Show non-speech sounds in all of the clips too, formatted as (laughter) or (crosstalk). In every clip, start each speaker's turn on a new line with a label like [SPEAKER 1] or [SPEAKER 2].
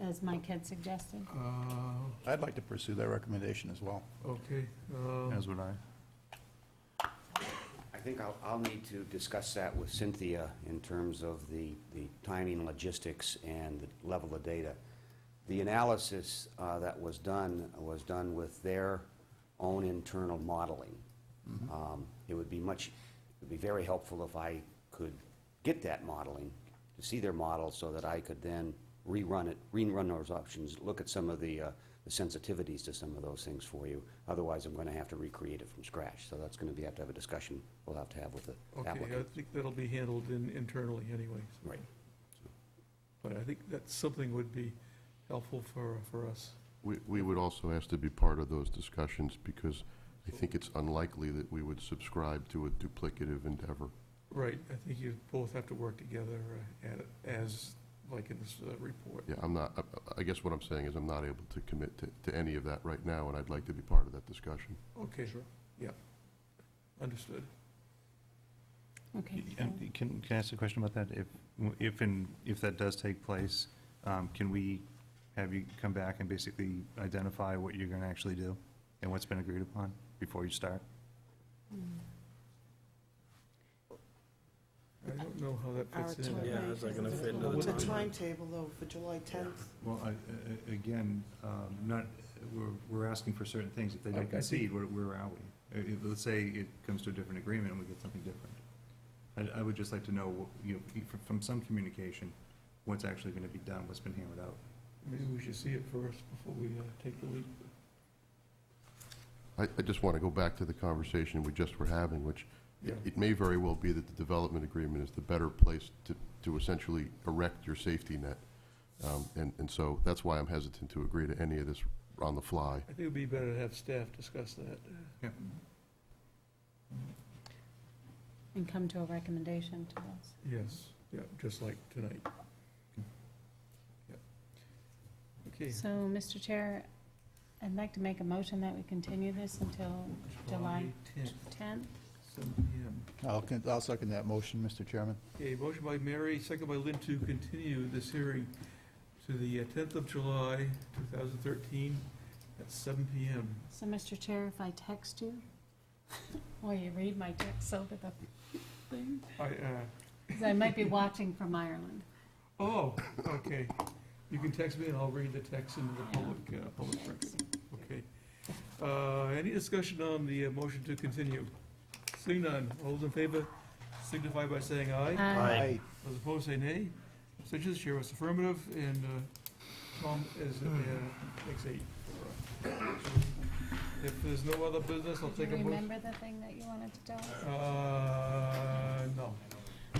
[SPEAKER 1] as Mike had suggested.
[SPEAKER 2] Uh,
[SPEAKER 3] I'd like to pursue that recommendation as well.
[SPEAKER 2] Okay,
[SPEAKER 4] Oh.
[SPEAKER 2] um,
[SPEAKER 3] As would I.
[SPEAKER 5] I think I'll, I'll need to discuss that with Cynthia in terms of the, the timing, logistics, and the level of data. The analysis uh, that was done was done with their own internal modeling. Um, It would be much, it would be very helpful if I could get that modeling, to see their model, so that I could then rerun it, rerun those options, look at some of the uh, the sensitivities to some of those things for you. Otherwise, I'm going to have to recreate it from scratch. So that's going to be, have to have a discussion we'll have to have with the
[SPEAKER 2] okay, uh, I
[SPEAKER 5] applicant.
[SPEAKER 2] think that'll be handled in, internally anyways.
[SPEAKER 5] Right.
[SPEAKER 2] But I think that something would be helpful for, for us.
[SPEAKER 6] We, we would also ask to be part of those discussions because I think it's unlikely that we would subscribe to a duplicative endeavor.
[SPEAKER 2] Right, I think you both have to work together uh, at, as, like in this uh, report.
[SPEAKER 6] Yeah, I'm not, I- I guess what I'm saying is I'm not able to commit to, to any of that right now, and I'd like to be part of that discussion.
[SPEAKER 2] Okay. Sure. Yeah, understood.
[SPEAKER 1] Okay.
[SPEAKER 3] Can, can I ask a question about that? If, if, and if that does take place, um, can we have you come back and basically identify what you're gonna actually do and what's been agreed upon before you start?
[SPEAKER 2] I don't know how that
[SPEAKER 1] Our
[SPEAKER 2] fits in.
[SPEAKER 1] attorney-
[SPEAKER 7] Yeah, how's that gonna fit into
[SPEAKER 2] Well,
[SPEAKER 7] the
[SPEAKER 2] what-
[SPEAKER 7] time?
[SPEAKER 8] timetable, though, for July 10th.
[SPEAKER 4] Well, I- a- a- again, um, not, we're, we're asking for certain things. If they
[SPEAKER 2] I- I
[SPEAKER 4] don't
[SPEAKER 2] think-
[SPEAKER 4] concede, where, where are we? Uh, if- Let's say it comes to a different agreement and we get something different. I, I would just like to know, you know, e- from- from some communication, what's actually gonna be done, what's been hammered out.
[SPEAKER 2] Maybe we should see it first before we uh, take the leap.
[SPEAKER 6] I, I just want to go back to the conversation we just were having, which
[SPEAKER 2] Yeah.
[SPEAKER 6] it may very well be that the development agreement is the better place to, to essentially erect your safety net. Um, And, and so that's why I'm hesitant to agree to any of this on the fly.
[SPEAKER 2] I think it'd be better to have staff discuss that.
[SPEAKER 1] And come to a recommendation to us.
[SPEAKER 2] Yes, yeah, just like tonight. Yeah. Okay.
[SPEAKER 1] So, Mr. Chair, I'd like to make a motion that we continue this until July
[SPEAKER 2] tenth,
[SPEAKER 1] 10th.
[SPEAKER 2] seven PM.
[SPEAKER 3] I'll, con- I'll second that motion, Mr. Chairman.
[SPEAKER 2] Okay, motion by Mary, second by Lynn to continue this hearing to the tenth of July, two thousand thirteen, at seven PM.
[SPEAKER 1] So, Mr. Chair, if I text you, (laughs) or you read my text over the thing,
[SPEAKER 2] I, uh,
[SPEAKER 1] 'cause I might be watching from Ireland.
[SPEAKER 2] oh, okay. You can text me and I'll read the text into the public, uh, public record. Okay. Uh, any discussion on the uh, motion to continue? Seeing none, all those in favor signify by saying aye.
[SPEAKER 1] Aye.
[SPEAKER 2] Those opposed say nay. Abstentions, chair votes affirmative, and uh, Tom is, uh, takes eight. If there's no other business, I'll
[SPEAKER 1] Uh, Do you
[SPEAKER 2] take a motion.
[SPEAKER 1] remember the thing that you wanted to tell us?
[SPEAKER 2] Uh, no.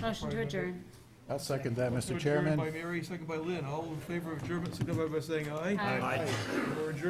[SPEAKER 1] Motion to adjourn.
[SPEAKER 3] I'll second that,
[SPEAKER 2] So
[SPEAKER 3] Mr.
[SPEAKER 2] adjourned
[SPEAKER 3] Chairman.
[SPEAKER 2] By Mary, second by Lynn. All in favor of adjournment, signify by saying aye.
[SPEAKER 1] Aye.
[SPEAKER 7] Aye.
[SPEAKER 2] We're adjourned.